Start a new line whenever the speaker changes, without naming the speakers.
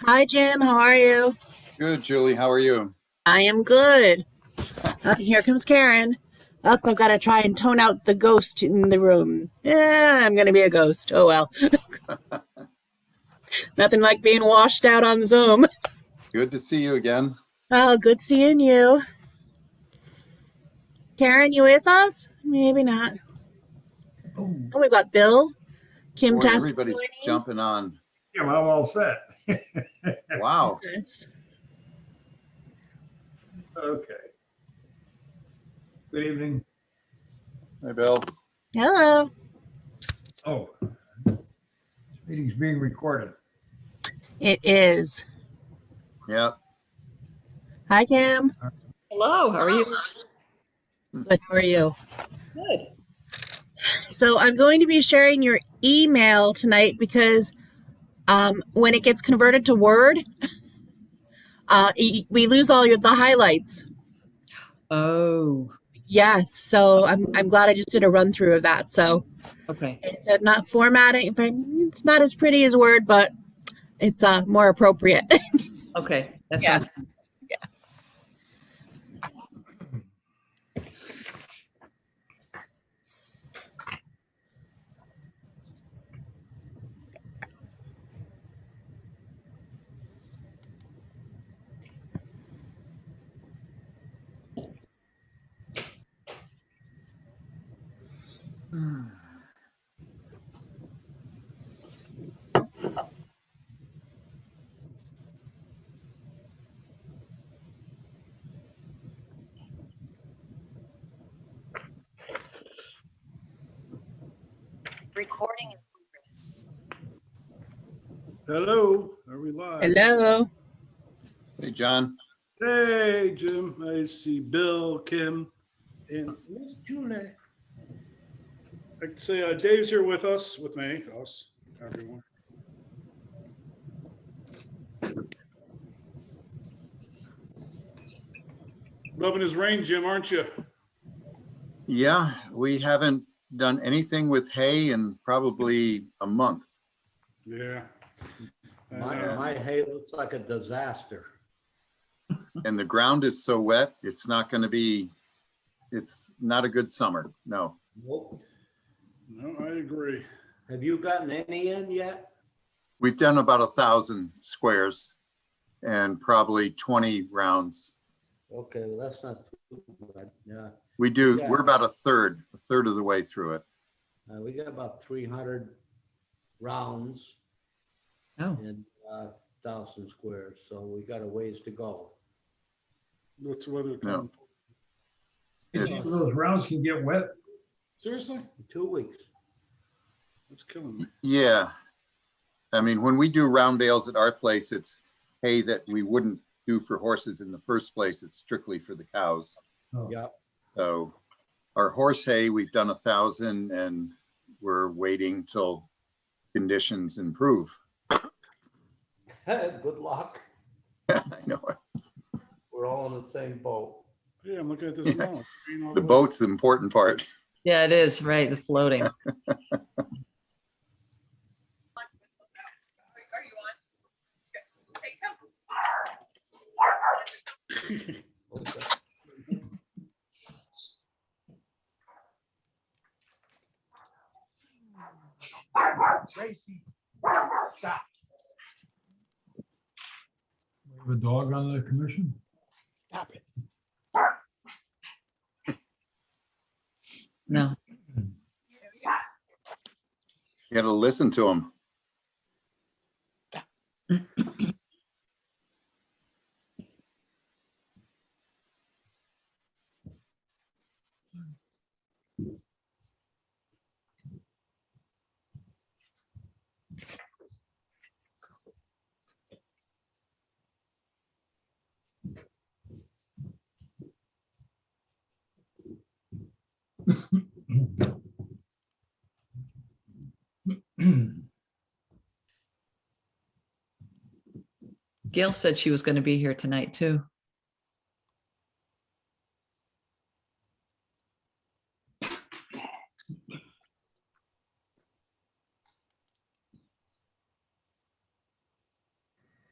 Hi, Jim. How are you?
Good, Julie. How are you?
I am good. Uh, here comes Karen. Up, I've got to try and tone out the ghost in the room. Yeah, I'm going to be a ghost. Oh, well. Nothing like being washed out on Zoom.
Good to see you again.
Oh, good seeing you. Karen, you with us? Maybe not. Oh, we've got Bill, Kim
Boy,
Tasper
everybody's
joining
jumping on.
Yeah, well, all set.
Wow.
us.
Okay. Good evening.
Hey, Bill.
Hello.
Oh, this meeting's being recorded.
It is.
Yeah.
Hi, Kim.
Hello, how are you?
Good. How are you? Good. So I'm going to be sharing your email tonight because um, when it gets converted to Word, uh, y- we lose all your the highlights.
Oh,
Yes. So I'm I'm glad I just did a run through of that. So
okay.
it's uh, not formatting. It's not as pretty as Word, but it's uh, more appropriate.
Okay. That's
Yeah.
not,
Recording. in progress.
Hello, are we live?
Hello.
Hey, John.
Hey, Jim, I see Bill, Kim, and Miss Julie. I can say uh, Dave's here with us, with me, us, everyone. Loving his rain, Jim, aren't you?
Yeah, we haven't done anything with hay in probably a month.
Yeah. And,
My,
uh,
my hay looks like a disaster.
And the ground is so wet, it's not going to be, it's not a good summer. No.
Nope.
No, I agree.
Have you gotten any in yet?
We've done about a thousand squares and probably 20 rounds.
Okay, well, that's not too bad. Yeah,
We do,
Yeah.
we're about a third, a third of the way through it.
Uh, we got about three hundred rounds
oh,
in uh thousand squares, so we got a ways to go.
What's the weather?
No.
coming?
It's-
Those rounds can get wet.
Seriously?
In Two weeks.
That's killing me.
Yeah. I mean, when we do round bales at our place, it's hay that we wouldn't do for horses in the first place. It's strictly for the cows.
Yeah,
So our horse hay, we've done a thousand and we're waiting till conditions improve.
good luck.
I know it.
We're all in the same boat.
Yeah, I'm looking at this now. Green all
The
way.
boat's the important part.
yeah, it is, right, the floating.
Okay.
We have a dog on the commission.
No.
You gotta listen to them.
Gail said she was going to be here tonight too.